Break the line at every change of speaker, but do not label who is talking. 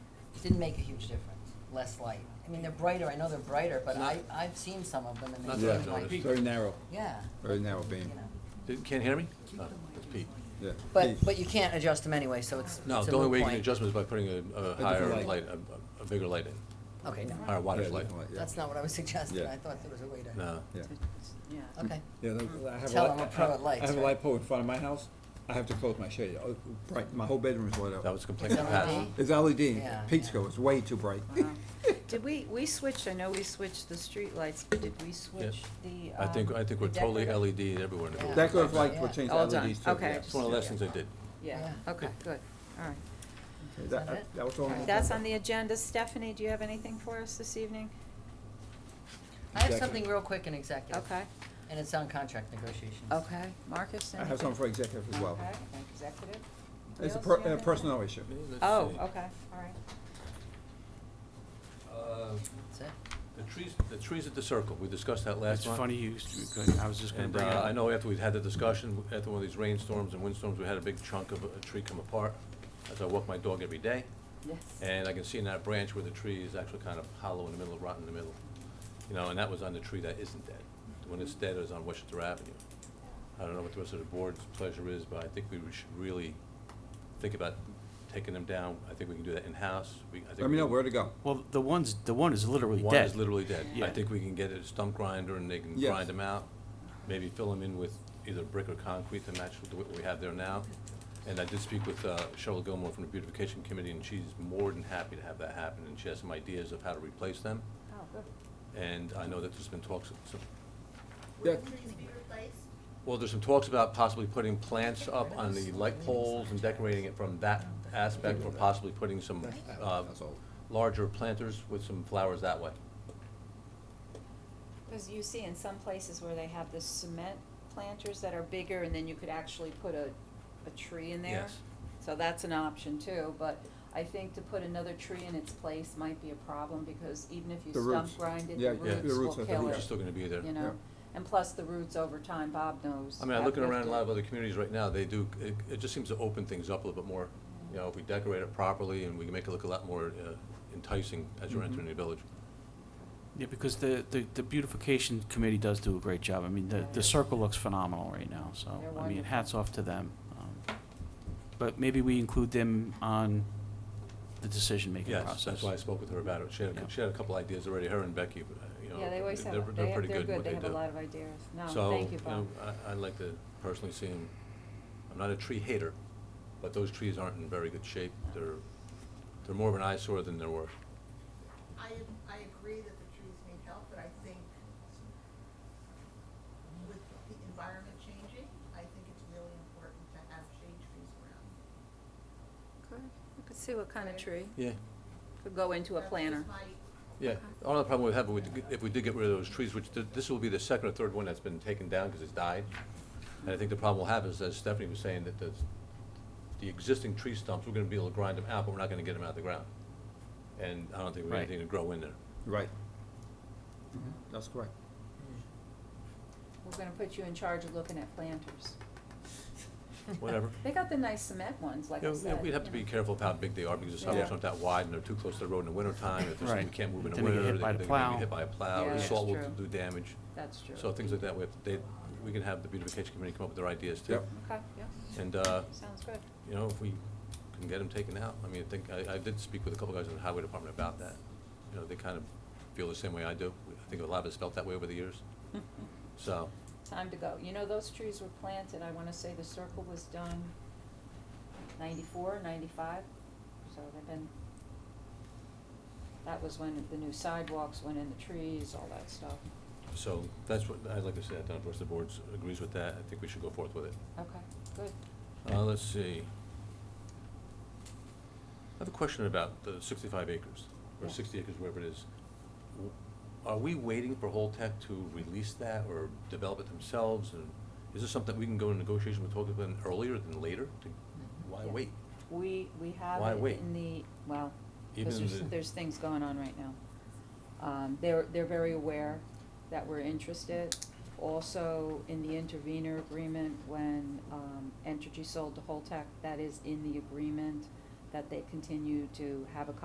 didn't make a huge difference, less light. I mean, they're brighter, I know they're brighter, but I,
Not-
I've seen some of them and
Not
they
that
seem
I've
like,
noticed.
yeah.
Very narrow, very narrow
You
beam,
know.
Did- Can't hear me? No, That's Pete.
yeah.
But, but you can't adjust them anyway, so it's,
No,
it's a
the only
moot
way you can
point.
adjust it is by putting a- a higher
light.
light, a- a a bigger light in,
Okay, no,
higher wattage
Yeah,
light.
different yeah.
that's not what I was suggesting,
Yeah. Mm-hmm.
I thought there was a way to.
No.
Yeah.
Yeah.
Okay,
Yeah, no, I have a
Tell
light,
them we're pro at
I- I
lights,
have a
right?
light pole in front of my house, I have to close my shade, Oh, bright, my whole bedroom is lit up.
That was a complaint
Is
in the
that
past.
LED?
It's E LED,
Yeah,
Peekskill,
yeah.
it's way too bright.
Wow. Uh-huh. Did we, we switched, I know we switched the streetlights, but did we switch the?
I think,
um,
I think we're
the
totally E
decorative?
LED everywhere in the building.
Decorative lights
Yeah.
were changed to
All done.
LEDs E too.
Okay,
yeah.
just-
It's one of the last things I did.
Yeah,
Yeah.
okay, good, all right.
Okay, That,
Is that
I-
it?
that was all.
All right, That's on the agenda. Stephanie, do you have anything for us this evening?
I have
Executive.
something real quick in executive.
Okay,
And it's on contract negotiations.
okay. Marcus?
I have
anything?
something for executive as well.
Okay, executive?
It's a
Anything else
per-
you have
a
in?
personnel issue.
Oh, okay, all right.
That's it.
Uh, The trees, the trees at the circle, we discussed that last
It's
month.
funny you, s- I was just gonna
And
bring it
uh,
up.
I know after we'd had the discussion, after one of these rainstorms and windstorms, we had a big chunk of a tree come apart. As I walk my dog every day,
Yes.
and I can see in that branch where the tree is actually kind of hollow in the middle, rotten in the middle. You know, and that was on the tree that isn't dead. When it's dead, it was on Westchester Avenue. I don't know what the rest of the board's pleasure is, but I think we should really think about taking them down. I think we can do that in-house. We- I think
Let
we
me know
can-
where to go.
Well, the one's, the one is literally dead.
one is literally dead. I
Yeah.
think we can get a stump grinder and they can
Yes.
grind them out, maybe fill them in with either brick or concrete to match with what we have there now. And I did speak with uh, Cheryl Gilmore from the beautification committee and she's more than happy to have that happen and she has some ideas of how to replace them.
Oh, good.
And I know that there's been talks, of some-
Yeah.
Would trees be replaced?
well, there's some talks about possibly putting plants up on the light poles and decorating it from that aspect or possibly putting some uh,
That's all.
larger planters with some flowers that way.
Because you see in some places where they have the cement planters that are bigger and then you could actually put a, a tree in there.
Yes.
So that's an option too, but I think to put another tree in its place might be a problem because even if you
The
stump
roots.
grind it,
Yeah,
the
yeah, the
roots
roots will
are- the
kill
Which
roots
is
it,
still gonna be there.
you
Yeah.
know? And plus the roots over time, Bob knows.
I mean, I'm
have
looking around in a lot of
lifted.
other communities right now, they do, it, it just seems to open things up a little bit more. You know, if we decorate it properly and we can make it look a lot more uh, enticing as you're entering the village.
Yeah, because the, the, the beautification committee does do a great job. I mean, the, the circle looks phenomenal right now, so,
They're
I mean,
wonderful.
hats off to them. Um, But maybe we include them on the decision-making process.
Yes, that's why I spoke with her about it. She had, a-
Yeah.
she had a couple ideas already, her and Becky, but, uh, you know.
Yeah, they always
they're-
have,
They're
they
pretty
have,
good
they're
in
good,
what
they
they do.
have a lot of ideas. No, thank you,
So, you know, uh,
Bob.
I, I'd like to personally see them, I'm not a tree hater, but those trees aren't in very good shape. They're, they're more of an eyesore than they're worth.
I, I agree that the trees need help, but I think with the environment changing, I think it's really important to have shade trees around.
Okay, we could see what kind of tree,
Yeah,
could go into a
That's just
planter.
my-
Yeah, another problem we have, we did- if we did get rid of those trees, which th- this will be the second or third one that's been taken down because it's died. And I think the problem we'll have is, as Stephanie was saying, that the, the existing tree stumps, we're gonna be able to grind them out, but we're not gonna get them out of the ground. And I don't think we have
Right.
anything to grow in there.
Right. Mm-hmm. That's correct.
We're gonna put you in charge of looking at planters.
Whatever.
They got the nice cement ones, like
You
I
know,
said.
We'd have to
you
be
know.
careful of how big they are because the
Yeah.
sidewalks aren't that wide and they're too close to the road in the wintertime. If there's, we
Right.
can't move in the
Then they get
winter,
hit
they're
by
gonna
the
be
plow.
hit by a plow,
Yeah,
or the
that's
salt will
true.
do damage.
That's true.
So things like that, we have, they, we can have the beautification committee come up with their ideas too.
Yep.
Okay, yeah,
And, uh,
sounds good.
you know, if we can get them taken out, I mean, I think, I, I did speak with a couple guys in the highway department about that. You know, they kind of feel the same way I do. I think a lot of us felt that way over the years. So,
Time to go. You know, those trees were planted, I wanna say the circle was done ninety-four, ninety-five, so they've been, that was when the new sidewalks went in, the trees, all that stuff.
so that's what, I'd like to say, I don't know if the board agrees with that. I think we should go forth with it.
Okay, good.
Uh, let's see. I have a question about the sixty-five acres, or
Yeah.
sixty acres, wherever it is. W- Are we waiting for Holtec to release that or develop it themselves? And is this something we can go in negotiation with Holtec then earlier than later? To-
Mm-hmm.
Why
Yeah.
wait?
We, we have
Why
it
wait?
in the, well,
Even
because there's,
the-
there's things going on right now. Um, they're, they're very aware that we're interested. Also, in the intervenor agreement, when, um, Entergy sold to Holtec, that is in the agreement that they continue to have a